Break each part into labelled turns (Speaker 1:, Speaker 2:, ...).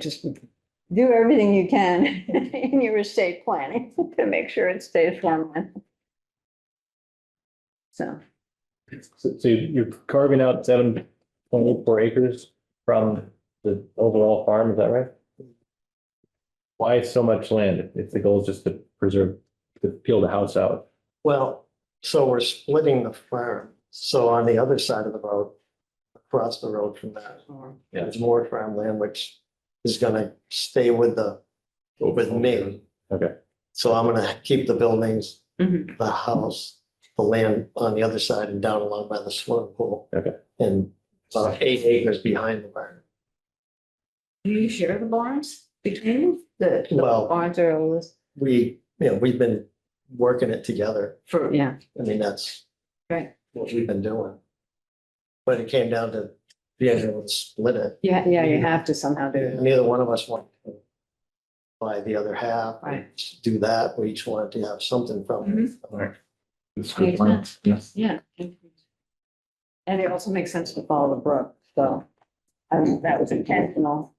Speaker 1: just with
Speaker 2: do everything you can in your estate planning to make sure it stays farmland. So,
Speaker 3: So so you- you're carving out seven point eight four acres from the overall farm, is that right? Why so much land if- if the goal is just to preserve, to peel the house out?
Speaker 4: Well, so we're splitting the farm. So on the other side of the road, across the road from that,
Speaker 3: Yeah.
Speaker 4: there's more farmland, which is gonna stay with the, with me.
Speaker 3: Okay.
Speaker 4: So I'm gonna keep the buildings,
Speaker 2: Mhm.
Speaker 4: the house, the land on the other side and down along by the swimming pool.
Speaker 3: Okay.
Speaker 4: And about eight acres behind the barn.
Speaker 2: do you share the barns between you? The the
Speaker 4: Well-
Speaker 2: barns are always
Speaker 4: We, you know, we've been working it together.
Speaker 2: for, yeah,
Speaker 4: I mean, that's
Speaker 2: right.
Speaker 4: what we've been doing. But it came down to being able to split it.
Speaker 2: Yeah, yeah, you have to somehow do it.
Speaker 4: Neither one of us want to buy the other half.
Speaker 2: Right.
Speaker 4: Just Do that. We each wanted to have something from
Speaker 2: Mm-hmm.
Speaker 4: it.
Speaker 2: Makes sense. Yeah. And it also makes sense to follow the brook, so, I mean, that was intentional,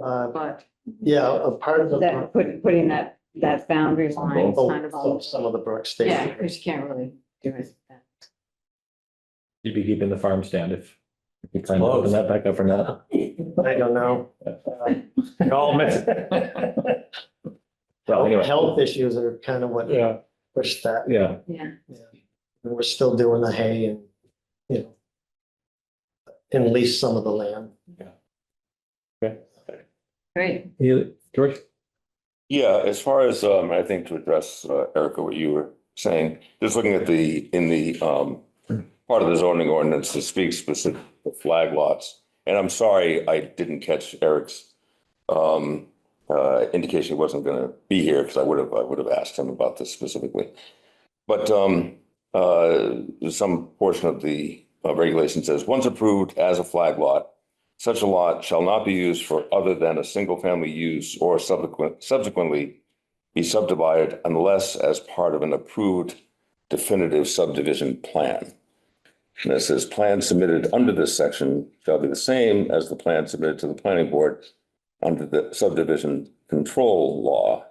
Speaker 4: Uh,
Speaker 2: but
Speaker 4: yeah, a part of the.
Speaker 2: that, put- putting that, that boundary line is
Speaker 4: Oh,
Speaker 2: kind of all,
Speaker 4: Some of the Brook
Speaker 2: yeah,
Speaker 4: Station.
Speaker 2: because you can't really do it.
Speaker 3: You'd be keeping the farm stand if you kind of open that back up or not.
Speaker 4: I don't know.
Speaker 3: It all mixed. Well, anyway.
Speaker 4: Health issues are kind of what
Speaker 3: Yeah,
Speaker 4: pushed that.
Speaker 3: yeah,
Speaker 2: Yeah.
Speaker 4: And We're still doing the hay and, you know, and lease some of the land.
Speaker 3: okay.
Speaker 2: Great.
Speaker 3: Yeah, George,
Speaker 5: Yeah, as far as, um, I think to address, uh, Erica, what you were saying, just looking at the, in the, um, part of the zoning ordinance that speaks specific to flag lots. And I'm sorry, I didn't catch Eric's, um, uh, indication he wasn't gonna be here because I would have, I would have asked him about this specifically. But, um, uh, some portion of the uh, regulation says, once approved as a flag lot, such a lot shall not be used for other than a single-family use or subsequent, subsequently be subdivided unless as part of an approved definitive subdivision plan. And it says, plans submitted under this section shall be the same as the plan submitted to the planning board under the subdivision control law.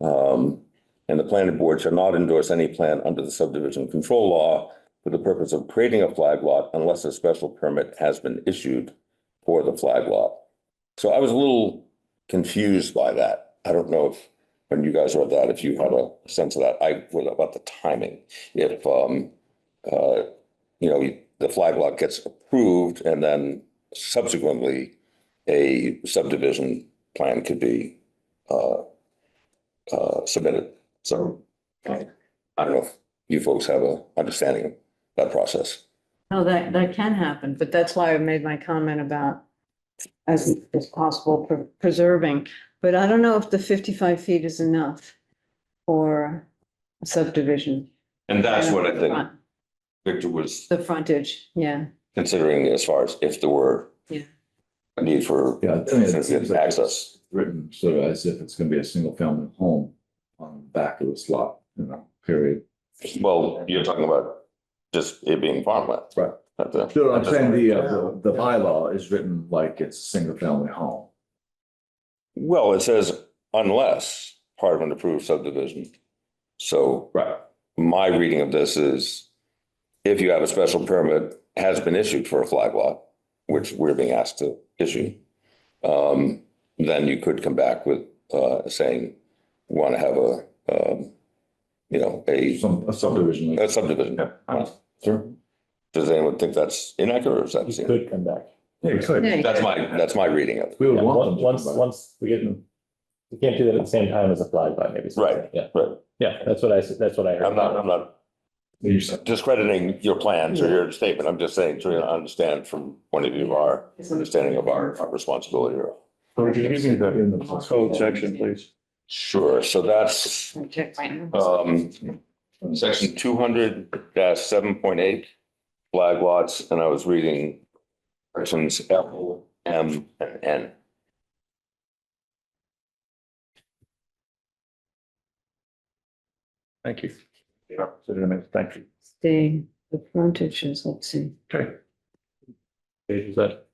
Speaker 5: Um, and the planning board shall not endorse any plan under the subdivision control law for the purpose of creating a flag lot unless a special permit has been issued for the flag lot. So I was a little confused by that. I don't know if, when you guys read that, if you had a sense of that. I, what about the timing? If, um, uh, you know, the flag lot gets approved and then subsequently a subdivision plan could be, uh, uh, submitted. So uh, I don't know if you folks have a understanding of that process.
Speaker 2: No, that, that can happen, but that's why I made my comment about as, as possible pre- preserving. But I don't know if the fifty-five feet is enough for a subdivision.
Speaker 5: And that's what I
Speaker 2: The
Speaker 5: think
Speaker 2: front-
Speaker 5: Victor was
Speaker 2: The frontage, yeah.
Speaker 5: considering as far as if there were
Speaker 2: Yeah.
Speaker 5: a need for
Speaker 6: Yeah, I mean, it seems
Speaker 5: sensitive
Speaker 6: like
Speaker 5: access.
Speaker 6: it's Written sort of as if it's gonna be a single family home on the back of this lot, you know, period.
Speaker 5: Well, you're talking about just it being farmland.
Speaker 6: Right.
Speaker 5: Not the-
Speaker 6: No, I'm saying the,
Speaker 4: uh, the-
Speaker 6: the bylaw is written like it's a single family home.
Speaker 5: Well, it says unless part of an approved subdivision. So
Speaker 6: Right.
Speaker 5: my reading of this is if you have a special permit has been issued for a flag lot, which we're being asked to issue, um, then you could come back with, uh, saying, want to have a, um, you know, a,
Speaker 6: Some a subdivision.
Speaker 5: a subdivision.
Speaker 6: Sure.
Speaker 5: Does anyone think that's inaccurate or is that?
Speaker 3: you could come back.
Speaker 6: Yeah,
Speaker 2: Yeah, you
Speaker 5: That's my, that's my reading of it.
Speaker 6: We would
Speaker 3: Yeah,
Speaker 6: want them.
Speaker 3: on-
Speaker 6: to
Speaker 3: Once,
Speaker 6: come back.
Speaker 3: once we get, in- you can't do that at the same time as a flag lot, maybe. so-
Speaker 5: Right,
Speaker 3: Yeah,
Speaker 5: right.
Speaker 3: yeah, that's what I, s- that's what I heard.
Speaker 5: I'm not, I'm not
Speaker 6: You said-
Speaker 5: discrediting your plans or your statement. I'm just saying, trying to understand from point of view of our understanding of our our responsibility.
Speaker 6: In the-
Speaker 2: Code section, please.
Speaker 5: Sure, so that's,
Speaker 2: Check right now.
Speaker 5: um, Section two hundred seven point eight, flag lots, and I was reading sections L, M, and N.
Speaker 6: Thank you. Thank you.
Speaker 2: The, the frontages, let's see.
Speaker 6: Okay.
Speaker 3: Is that